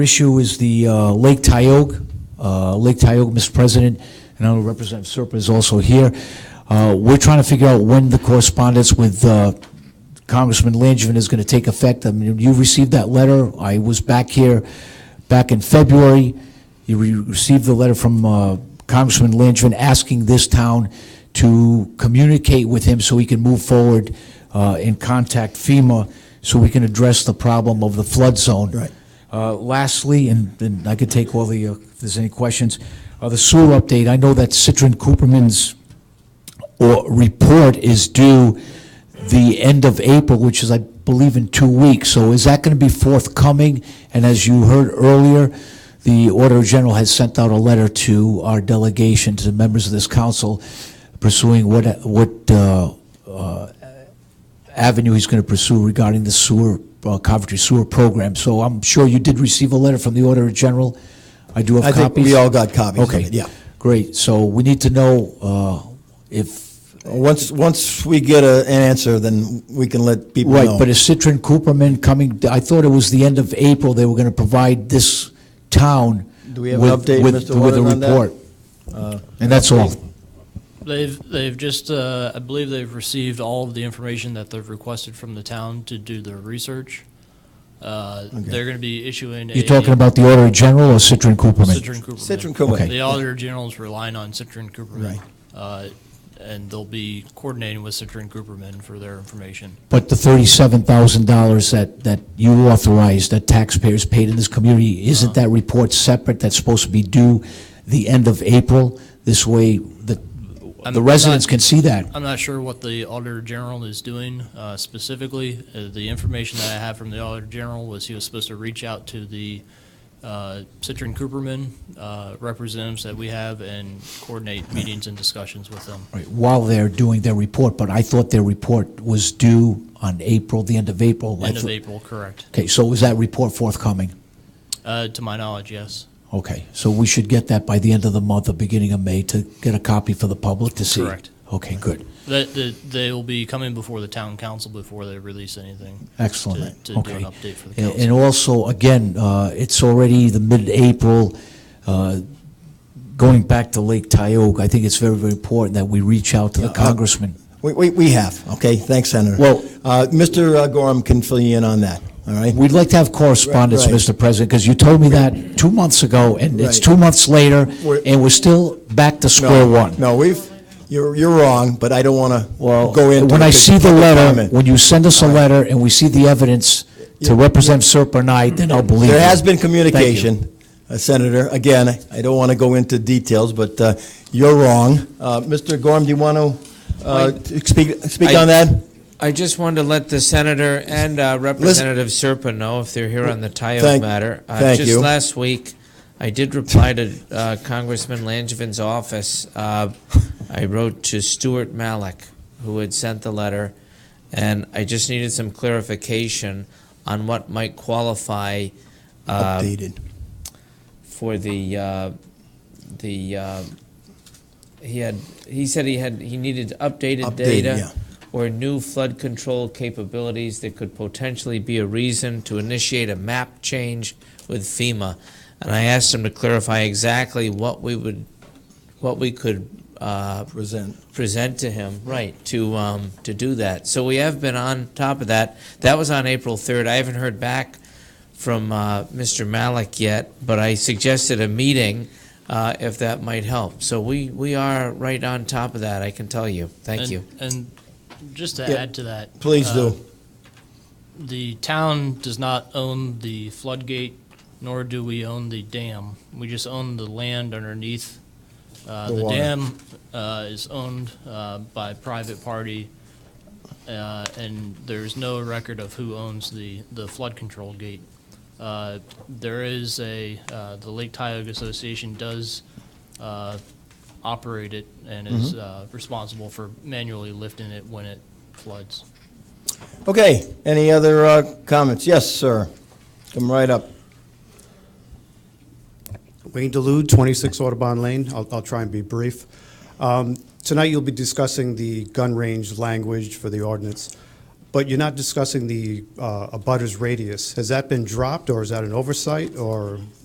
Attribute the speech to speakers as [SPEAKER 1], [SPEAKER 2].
[SPEAKER 1] Issue is the uh, Lake Tioga. Uh, Lake Tioga, Mr. President, and I know Representative Serpa is also here. Uh, We're trying to figure out when the correspondence with uh, Congressman Langevin is going to take effect. I mean, you received that letter. I was back here back in February. You re- received the letter from uh, Congressman Langevin asking this town to communicate with him so he can move forward uh, and contact FEMA so we can address the problem of the flood zone.
[SPEAKER 2] Right.
[SPEAKER 1] Uh, Lastly, and and I could take all the, uh, if there's any questions, uh, the sewer update. I know that Citron Cooperman's or report is due the end of April, which is, I believe, in two weeks. So is that going to be forthcoming? And as you heard earlier, the Auditor General has sent out a letter to our delegation, to the members of this council, pursuing what, what uh, uh, avenue he's going to pursue regarding the sewer, uh, Coventry sewer program. So I'm sure you did receive a letter from the Auditor General. I do
[SPEAKER 2] I
[SPEAKER 1] have copies.
[SPEAKER 2] think we all got copies of
[SPEAKER 1] Okay.
[SPEAKER 2] it, yeah.
[SPEAKER 1] Great. So we need to know uh, if
[SPEAKER 2] Once, once we get a- an answer, then we can let people know.
[SPEAKER 1] Right, but is Citron Cooperman coming, I thought it was the end of April, they were going to provide this town
[SPEAKER 2] Do we have an
[SPEAKER 1] with-
[SPEAKER 2] update,
[SPEAKER 1] with-
[SPEAKER 2] Mr.
[SPEAKER 1] With a
[SPEAKER 2] Warren, on that? Uh,
[SPEAKER 1] report. And that's all.
[SPEAKER 3] They've, they've just, uh, I believe they've received all of the information that they've requested from the town to do their research. Uh, They're going to be issuing a.
[SPEAKER 1] You're talking about the Auditor General or Citron Cooperman?
[SPEAKER 3] Citron Cooperman.
[SPEAKER 2] Citron Cooperman.
[SPEAKER 1] Okay.
[SPEAKER 3] The Auditor General's relying on Citron Cooperman.
[SPEAKER 2] Right.
[SPEAKER 3] uh, And they'll be coordinating with Citron Cooperman for their information.
[SPEAKER 1] But the $37,000 that, that you authorized, that taxpayers paid in this community, isn't
[SPEAKER 2] Uh-huh.
[SPEAKER 1] that report separate, that's supposed to be due the end of April? This way, the,
[SPEAKER 3] I'm
[SPEAKER 1] the residents
[SPEAKER 3] not-
[SPEAKER 1] can see that.
[SPEAKER 3] I'm not sure what the Auditor General is doing uh, specifically. Uh, The information that I have from the Auditor General was he was supposed to reach out to the uh, Citron Cooperman uh, representatives that we have and coordinate meetings and discussions with them.
[SPEAKER 1] Right, while they're doing their report, but I thought their report was due on April, the end of April. I
[SPEAKER 3] End of
[SPEAKER 1] thought-
[SPEAKER 3] April, correct.
[SPEAKER 1] Okay, so was that report forthcoming?
[SPEAKER 3] Uh, To my knowledge, yes.
[SPEAKER 1] Okay, so we should get that by the end of the month, or beginning of May, to get a copy for the public to see?
[SPEAKER 3] Correct.
[SPEAKER 1] Okay, good,
[SPEAKER 3] That, that they will be coming before the town council before they release anything.
[SPEAKER 1] excellent,
[SPEAKER 3] To- to do
[SPEAKER 1] okay.
[SPEAKER 3] an update for the
[SPEAKER 1] And-
[SPEAKER 3] council.
[SPEAKER 1] And also, again, uh, it's already the mid-April, uh, going back to Lake Tioga, I think it's very, very important that we reach out to the
[SPEAKER 2] uh,
[SPEAKER 1] congressman.
[SPEAKER 2] We, we, we have, okay? Thanks, Senator.
[SPEAKER 1] Well-
[SPEAKER 2] Uh, Mr. Gorham can fill you in on that, all right?
[SPEAKER 1] We'd like to have correspondence,
[SPEAKER 2] Right, right.
[SPEAKER 1] Mr. President, because you told me that two months ago, and it's
[SPEAKER 2] Right.
[SPEAKER 1] two months later,
[SPEAKER 2] We're-
[SPEAKER 1] and we're still back to
[SPEAKER 2] No,
[SPEAKER 1] square one.
[SPEAKER 2] No, we've, you're, you're wrong, but I don't want to
[SPEAKER 1] Well,
[SPEAKER 2] go into.
[SPEAKER 1] when I
[SPEAKER 2] it 'cause
[SPEAKER 1] see the
[SPEAKER 2] public
[SPEAKER 1] letter,
[SPEAKER 2] comment.
[SPEAKER 1] when you send us a letter and we see the evidence to Representative Serpa and I, then I'll believe you.
[SPEAKER 2] There has
[SPEAKER 1] Thank
[SPEAKER 2] been
[SPEAKER 1] you.
[SPEAKER 2] communication, uh, Senator. Again, I- I don't want to go into details, but uh, you're wrong. Uh, Mr. Gorham, do you want to speak, speak
[SPEAKER 4] I-
[SPEAKER 2] on that?
[SPEAKER 4] I just wanted to let the senator and uh, Representative Serpa know if they're here on the Tioga
[SPEAKER 2] Thank-
[SPEAKER 4] matter. Uh,
[SPEAKER 2] thank you.
[SPEAKER 4] Just last week, I did reply to uh, Congressman Langevin's office. Uh, I wrote to Stuart Malik, who had sent the letter, and I just needed some clarification on what might qualify uh,
[SPEAKER 2] Updated.
[SPEAKER 4] for the, uh, the, uh, he had, he said he had, he needed updated
[SPEAKER 2] Updated, yeah.
[SPEAKER 4] data or new flood control capabilities that could potentially be a reason to initiate a map change with FEMA. And I asked him to clarify exactly what we would, what we could uh,
[SPEAKER 2] Present.
[SPEAKER 4] present to him, right, to, um, to do that. So we have been on top of that. That was on April 3rd. I haven't heard back from uh, Mr. Malik yet, but I suggested a meeting uh, if that might help. So we, we are right on top of that, I can tell you. Thank
[SPEAKER 3] And-
[SPEAKER 4] you.
[SPEAKER 3] And just to
[SPEAKER 2] Yeah.
[SPEAKER 3] add to that.
[SPEAKER 2] Please
[SPEAKER 3] uh,
[SPEAKER 2] do.
[SPEAKER 3] The town does not own the floodgate, nor do we own the dam. We just own the land underneath. Uh,
[SPEAKER 2] The
[SPEAKER 3] The
[SPEAKER 2] water.
[SPEAKER 3] dam uh, is owned uh, by a private party, uh, and there's no record of who owns the the flood control gate. Uh, There is a, uh, the Lake Tioga Association does uh, operate it and
[SPEAKER 2] Mm-hmm.
[SPEAKER 3] is uh, responsible for manually lifting it when it floods.
[SPEAKER 2] Okay, any other uh, comments? Yes, sir. Come right up.
[SPEAKER 5] Wayne Delude, 26 Audubon Lane. I'll, I'll try and be brief. Um, Tonight, you'll be discussing the gun range language for the ordinance. But you're not discussing the uh, abutters radius. Has that been dropped, or is that an oversight, or?